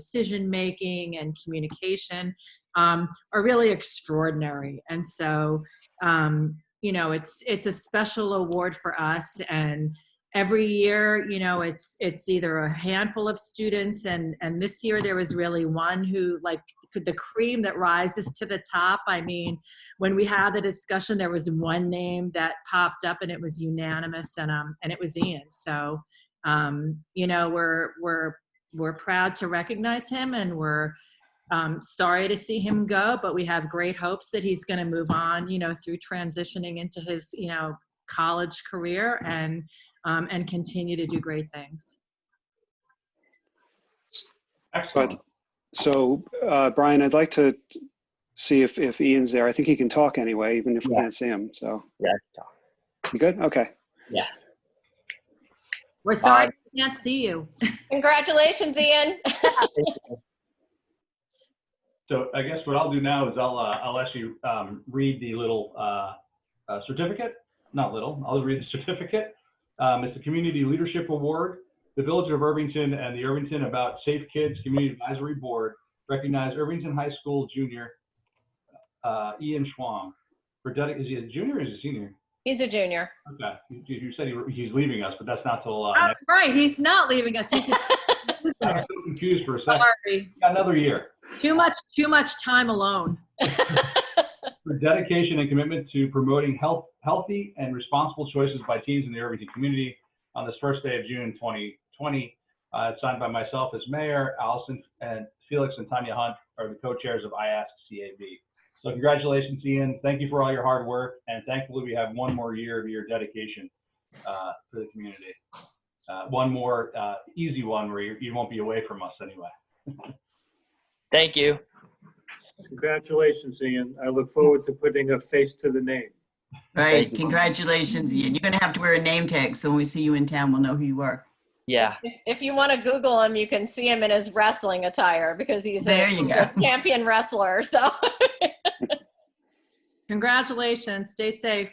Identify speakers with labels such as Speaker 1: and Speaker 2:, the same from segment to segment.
Speaker 1: decision making and communication um, are really extraordinary and so um, you know it's it's a special award for us and every year you know it's it's either a handful of students and and this year there was really one who like could the cream that rises to the top i mean when we had the discussion there was one name that popped up and it was unanimous and um and it was ian so um you know we're we're we're proud to recognize him and we're um, sorry to see him go, but we have great hopes that he's going to move on, you know, through transitioning into his, you know, college career and um, and continue to do great things.
Speaker 2: But, so, uh, Brian, I'd like to see if, if Ian's there. I think he can talk anyway, even if we
Speaker 3: Yeah.
Speaker 2: can't see him. So,
Speaker 3: Yeah.
Speaker 2: you good? Okay.
Speaker 3: Yeah.
Speaker 1: We're sorry we can't see you.
Speaker 4: Congratulations, Ian.
Speaker 5: So I guess what I'll do now is I'll, uh, I'll actually um, read the little uh, uh, certificate, not little, I'll read the certificate. Um, It's the Community Leadership Award. The Village of Irvington and the Irvington About Safe Kids Community Advisory Board recognize Irvington High School junior uh, Ian Schwam for dedic, is he a junior or is he a senior?
Speaker 4: He's a junior.
Speaker 5: Okay, you- you said he- he's leaving us, but that's not till, uh,
Speaker 1: Oh,
Speaker 5: next-
Speaker 1: right, he's not leaving us. He's
Speaker 5: I was so confused for a second.
Speaker 1: sorry.
Speaker 5: Got Another year.
Speaker 1: Too much, too much time alone.
Speaker 5: for dedication and commitment to promoting health, healthy and responsible choices by teens in the Irvington community on this first day of June 2020. Uh, it's signed by myself as mayor, Allison and Felix and Tanya Hunt are the co-chairs of IASC-CAB. So congratulations, Ian. Thank you for all your hard work. And thankfully, we have one more year of your dedication uh, for the community. Uh, one more uh, easy one where you, you won't be away from us anyway.
Speaker 3: Thank you.
Speaker 6: Congratulations, Ian. I look forward to putting a face to the name.
Speaker 3: Thank
Speaker 7: Right,
Speaker 3: you.
Speaker 7: congratulations, Ian. You're gonna have to wear a name tag, so when we see you in town, we'll know who you are.
Speaker 3: Yeah.
Speaker 4: If, if you want to Google him, you can see him in his wrestling attire because he's
Speaker 7: There
Speaker 4: a
Speaker 7: you go.
Speaker 4: champion wrestler. So
Speaker 1: Congratulations. Stay safe.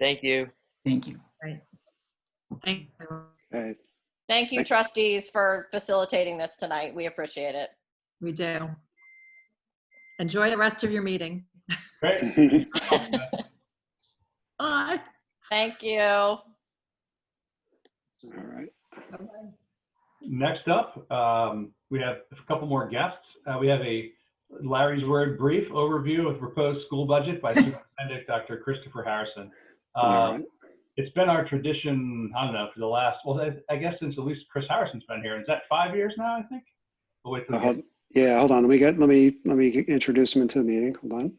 Speaker 3: Thank you.
Speaker 7: Thank you.
Speaker 1: Thank you.
Speaker 2: Okay.
Speaker 4: thank you, trustees, for facilitating this tonight. We appreciate it.
Speaker 1: We do. Enjoy the rest of your meeting.
Speaker 5: Great.
Speaker 1: Bye.
Speaker 4: Thank you.
Speaker 2: All right.
Speaker 5: Next up, um, we have a couple more guests. Uh, we have a Larry's Word brief overview of proposed school budget by Superintendent Dr. Christopher Harrison.
Speaker 8: Uh,
Speaker 2: All right.
Speaker 5: Um, it's been our tradition, I don't know, for the last, well, I- I guess since at least Chris Harrison's been here. Is that five years now, I think? Oh, wait, till
Speaker 2: Uh,
Speaker 5: we get-
Speaker 2: hold- yeah, hold on. Let me get, let me, let me introduce him into the meeting. Hold on.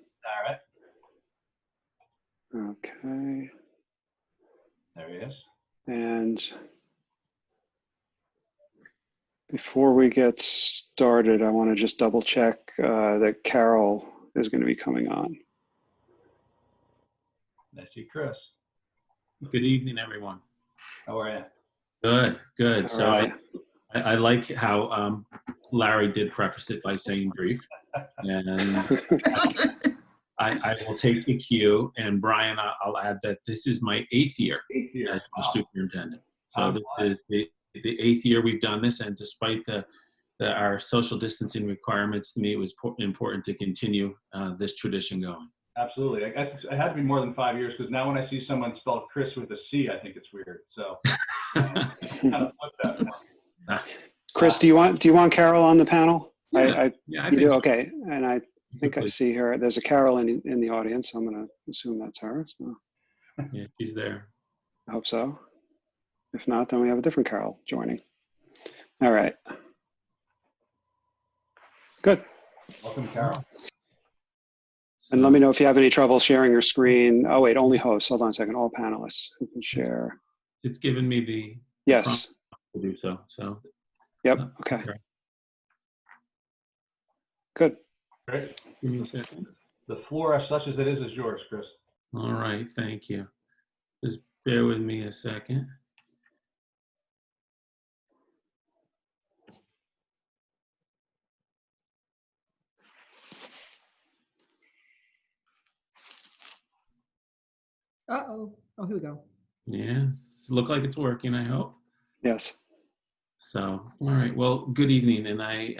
Speaker 5: all right,
Speaker 2: Okay.
Speaker 5: there he is.
Speaker 2: And before we get started, I want to just double check uh, that Carol is going to be coming on.
Speaker 5: Nice to see Chris.
Speaker 8: Good evening, everyone.
Speaker 5: How are you?
Speaker 8: Good, good. So
Speaker 2: All
Speaker 8: I,
Speaker 2: right.
Speaker 8: I I like how um, Larry did preface it by saying brief. And I, I will take the cue. And Brian, I- I'll add that this is my eighth year
Speaker 5: Eight
Speaker 8: as
Speaker 5: years.
Speaker 8: the
Speaker 5: Wow.
Speaker 8: superintendent. So
Speaker 5: Time
Speaker 8: this
Speaker 5: flies.
Speaker 8: is the, the eighth year we've done this. And despite the, the our social distancing requirements, to me, it was po- important to continue uh, this tradition going.
Speaker 5: Absolutely. I guess it had to be more than five years because now when I see someone spell Chris with a C, I think it's weird. So kind of flip that one.
Speaker 2: Chris, do you want, do you want Carol on the panel? I, I,
Speaker 8: yeah, I
Speaker 2: you
Speaker 8: think
Speaker 2: do,
Speaker 8: so.
Speaker 2: okay. And I think I see her. There's a Carol in, in the audience. I'm going to assume that's her. So
Speaker 8: Yeah, she's there.
Speaker 2: I hope so. If not, then we have a different Carol joining. All right. Good.
Speaker 5: Welcome, Carol.
Speaker 2: And let me know if you have any trouble sharing your screen. Oh, wait, only hosts. Hold on a second. All panelists who can share.
Speaker 8: It's given me the
Speaker 2: Yes.
Speaker 8: to do so. So
Speaker 2: Yep.
Speaker 8: Oh,
Speaker 2: Okay. Good.
Speaker 5: Great.
Speaker 8: give me a second.
Speaker 5: The floor, as such as it is, is yours, Chris.
Speaker 8: All right, thank you. Just bear with me a second.
Speaker 1: Uh-oh. Oh, here we go.
Speaker 8: Yeah, s- look like it's working, I hope.
Speaker 2: Yes.
Speaker 8: So, all right, well, good evening, and I